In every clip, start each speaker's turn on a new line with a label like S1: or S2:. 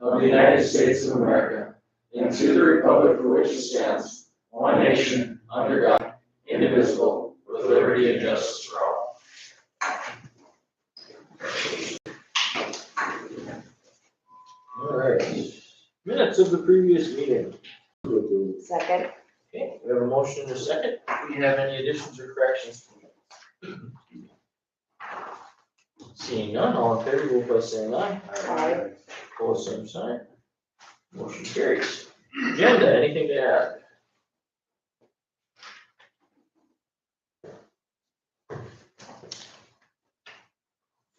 S1: of the United States of America and to the republic for which it stands, one nation, under God, indivisible, with liberty and justice for all.
S2: All right. Minutes of the previous meeting.
S3: Second,
S2: Okay, we have a motion and a second. Do you have any additions or corrections? Seeing none, all in favor, vote by saying aye.
S3: Aye.
S2: Pull the same sign. Motion carries. Agenda, anything to add?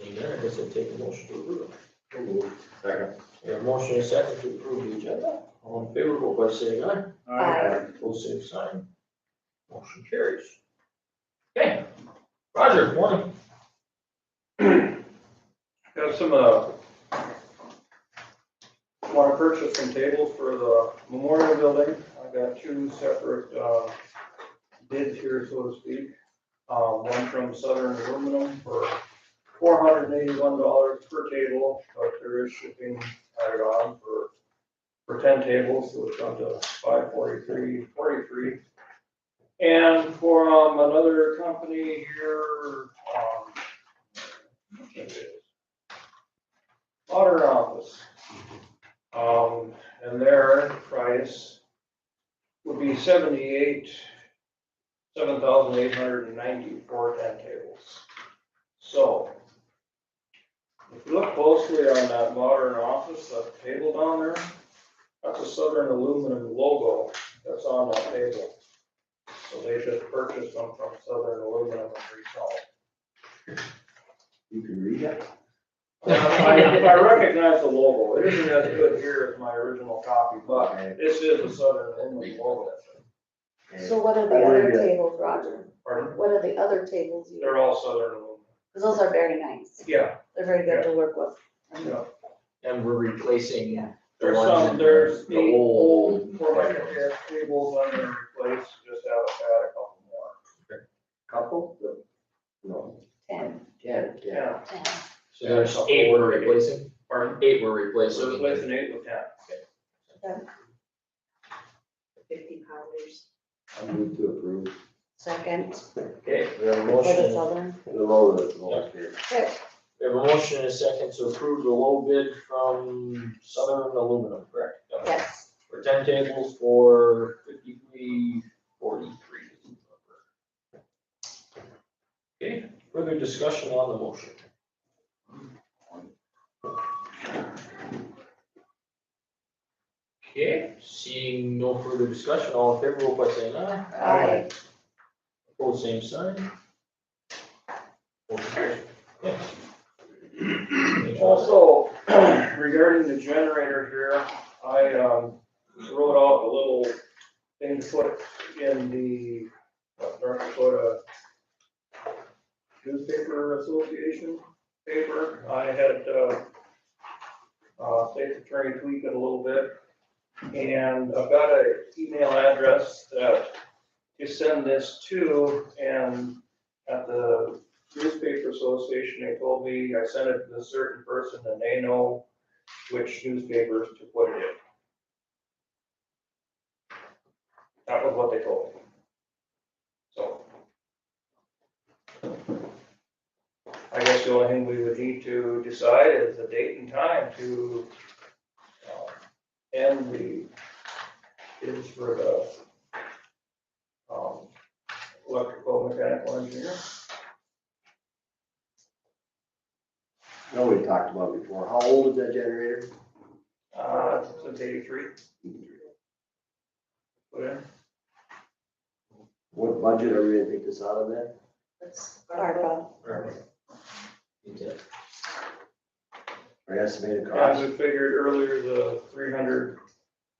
S2: Seeing none, I guess I'll take a motion to approve.
S4: Second.
S2: We have a motion and a second to approve the agenda. All in favor, vote by saying aye.
S3: Aye.
S2: Pull same sign. Motion carries. Okay. Roger, morning.
S5: Got some, uh, want to purchase some tables for the memorial building. I got two separate, uh, bids here, so to speak. Um, one from Southern Aluminum for four hundred and eighty-one dollars per table, but there is shipping added on for, for ten tables, so it's down to five forty-three, forty-three. And for, um, another company here, um, I can't get it. Auditor office. Um, and their price would be seventy-eight, seven thousand eight hundred and ninety-four ten tables. So. If you look closely on that modern office, that table down there, that's a Southern Aluminum logo that's on that table. So they just purchased them from Southern Aluminum and resold.
S4: You can read it.
S5: I, I recognize the logo, it isn't as good here as my original copy, but this is a Southern Inland logo.
S3: so what are the other tables, Roger?
S5: Pardon?
S3: What are the other tables you,
S5: They're all Southern Inland.
S3: because those are very nice,
S5: Yeah,
S3: they're very good to work with.
S5: yeah.
S2: And we're replacing. the
S5: There's
S2: ones
S5: some,
S2: in
S5: there's
S2: the
S5: the old, for my computer tables I'm gonna replace, just have a add a couple more.
S4: Couple? No.
S3: Ten,
S2: Yeah.
S5: Yeah.
S3: ten.
S2: So there's eight we're replacing,
S5: Pardon?
S2: eight we're replacing.
S5: So replace an eight with ten.
S3: Fifty pounders.
S4: I move to approve.
S3: Second,
S2: Okay, we have a
S3: for the
S2: motion,
S3: southern,
S4: The lower, the lower here.
S3: Okay,
S2: we have a motion and a second to approve the low bid from Southern Aluminum, correct?
S3: yes,
S2: For ten tables for fifty-three forty-three. Okay, further discussion on the motion. Okay, seeing no further discussion, all in favor, vote by saying aye.
S3: Aye.
S2: Pull same sign. Motion carries. Okay.
S5: Also, regarding the generator here, I, um, wrote out a little thing to put in the what, North Dakota newspaper association paper. I had, uh, uh, state attorney tweak it a little bit. And I've got an email address that you send this to and at the newspaper association, they told me I sent it to a certain person and they know which newspapers to put it in. That was what they told me. So. I guess the only thing we would need to decide is the date and time to uh, end the bids for the um, electrical mechanical engineer.
S4: No, we talked about it before. How old is that generator?
S5: Uh, since eighty-three. Put in,
S4: What budget are we gonna take this out of then?
S3: that's ARPA,
S4: Our estimated
S5: as
S4: cost?
S5: we figured earlier, the three hundred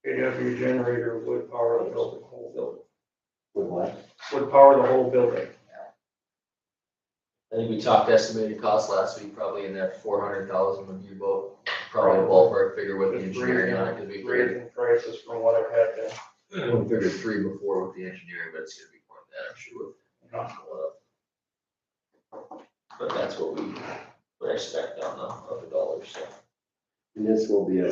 S5: KW generator would power the building, whole building,
S4: With what?
S5: would power the whole building.
S6: I think we talked estimated cost last week, probably in that four hundred thousand would be about, probably a ballpark figure with the
S5: Just
S6: engineering on it, cause we
S5: raising-
S6: figured,
S5: Raising prices from what it had been.
S6: we figured three before with the engineering, but it's gonna be more than that, I'm sure. with-
S2: But that's what we, we expect on the, of the dollars, so.
S4: And this will be a